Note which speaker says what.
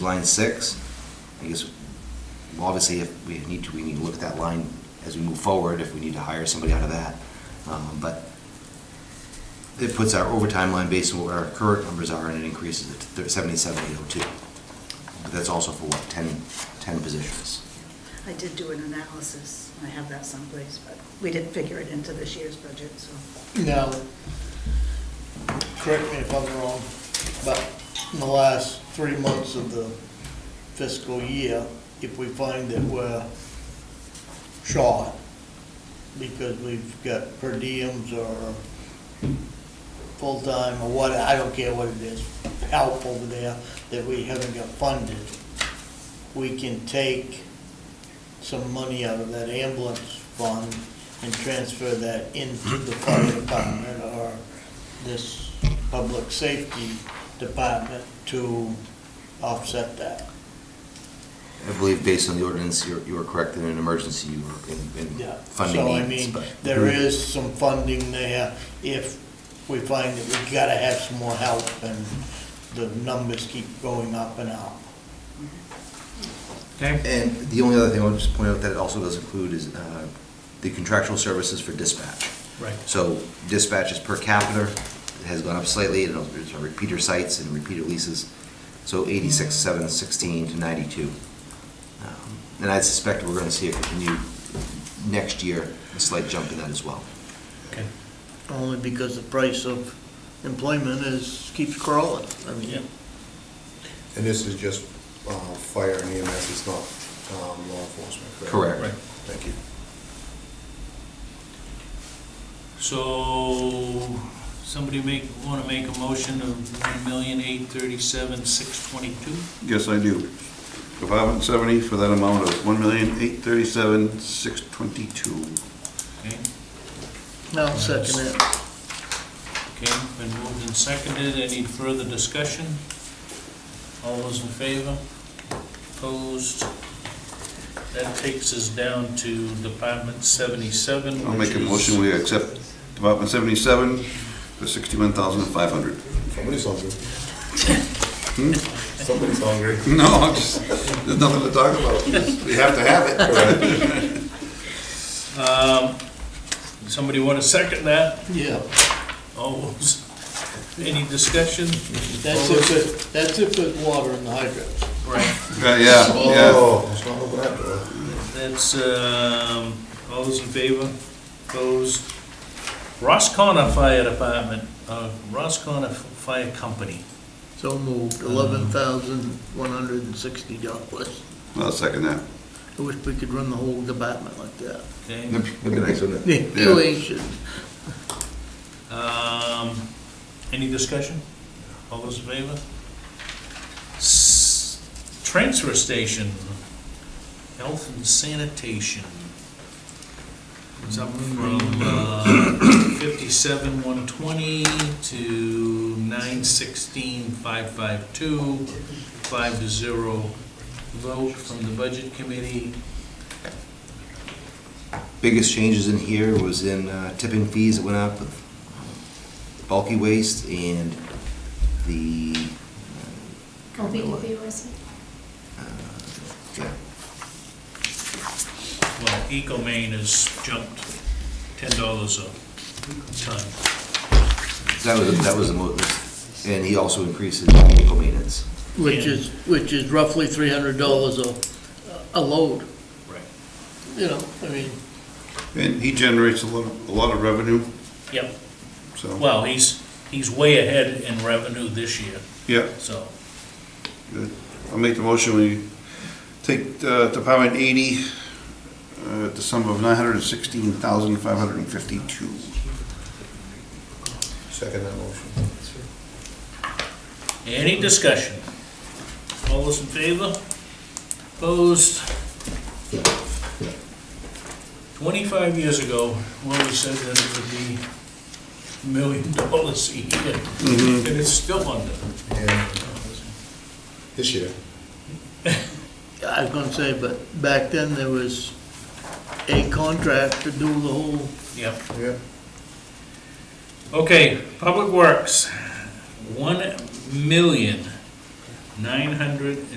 Speaker 1: line six, I guess, well, obviously, if we need to, we need to look at that line as we move forward, if we need to hire somebody out of that. Um, But it puts our overtime line based on what our current numbers are, and it increases it to seventy-seven eight oh two. But that's also for what, 10 10 positions?
Speaker 2: I did do an analysis, I have that someplace, but we didn't figure it into this year's budget, so.
Speaker 3: Now, correct me if I'm wrong, but in the last three months of the fiscal year, if we find that we're short, because we've got per diems or full-time or what, I don't care what it is, help over there that we haven't got funded, we can take some money out of that ambulance fund and transfer that into the fire department or this public safety department to offset that.
Speaker 1: I believe based on the ordinance, you're, you are correct, in an emergency, you are in, in
Speaker 3: Yeah. So I
Speaker 1: funding needs,
Speaker 3: mean,
Speaker 1: but.
Speaker 3: there is some funding there if we find that we gotta have some more help and the numbers keep going up and up.
Speaker 4: Okay,
Speaker 1: And the only other thing I would just point out that it also does include is uh, the contractual services for dispatch.
Speaker 4: right.
Speaker 1: So dispatches per capita has gone up slightly, and those are repeater sites and repeater leases, so eighty-six, seven, sixteen to ninety-two. Um, And I suspect we're gonna see a continued, next year, a slight jump in that as well.
Speaker 4: Okay.
Speaker 3: Only because the price of employment is, keeps crawling. I mean,
Speaker 5: And this is just uh, fire and EMS, it's not um, law enforcement, correct?
Speaker 1: Correct.
Speaker 4: Right.
Speaker 5: Thank you.
Speaker 4: So, somebody make, want to make a motion of one million eight thirty-seven six twenty-two?
Speaker 6: Yes, I do. Department 70 for that amount of $1,837,622.
Speaker 4: Okay,
Speaker 3: I'll second it.
Speaker 4: okay, been moved and seconded. Any further discussion? All those in favor? Opposed? That takes us down to Department seventy-seven.
Speaker 6: I'll make a
Speaker 4: which is-
Speaker 6: motion, we accept Department 77 for $61,500.
Speaker 5: Somebody's hungry. Hmm? Somebody's hungry.
Speaker 6: No, I'm just, there's nothing to talk about.
Speaker 5: We have to have it,
Speaker 6: Uh,
Speaker 5: correct?
Speaker 4: Um, somebody want to second that?
Speaker 3: Yeah.
Speaker 4: All those, any discussion?
Speaker 3: That's if it, that's if it's water in the hydrants.
Speaker 4: Right.
Speaker 6: Yeah, yeah.
Speaker 5: Oh, it's not open that door.
Speaker 4: That's, um, all those in favor? Opposed? Roscona Fire Department, uh, Roscona Fire Company.
Speaker 3: So moved, eleven thousand one hundred and sixty dollars.
Speaker 6: I'll second that.
Speaker 3: I wish we could run the whole department like that.
Speaker 4: Okay,
Speaker 1: That'd be nice, wouldn't it?
Speaker 3: Yeah, we should.
Speaker 4: um, any discussion? All those in favor? S- Transfer Station, Health and Sanitation. It's up from uh, fifty-seven, one twenty to nine sixteen, five five two, five to zero vote from the Budget Committee.
Speaker 1: Biggest changes in here was in uh, tipping fees that went up with bulky waste and the. uh,
Speaker 7: LBDP, was it?
Speaker 1: Uh, Yeah,
Speaker 4: Well, EcoMaine has jumped ten dollars a ton.
Speaker 1: that was, that was the most, and he also increases vehicle maintenance.
Speaker 3: Which is, which is roughly three hundred dollars a, a load,
Speaker 4: Right.
Speaker 3: you know, I mean,
Speaker 6: And he generates a lot, of- a lot of revenue,
Speaker 4: Yep,
Speaker 6: so,
Speaker 4: well, he's, he's way ahead in revenue this year,
Speaker 6: yeah.
Speaker 4: so.
Speaker 6: I'll make the motion, we take uh, Department 80, uh, the sum of $916,552.
Speaker 5: Second that motion.
Speaker 4: Any discussion? All those in favor? Opposed? Twenty-five years ago, when we said that it would be a million dollars a year, and it's still under.
Speaker 5: And This year.
Speaker 3: I was gonna say, but back then there was a contract to do the whole,
Speaker 4: Yep.
Speaker 5: Yeah.
Speaker 4: Okay, Public Works, one million, nine hundred and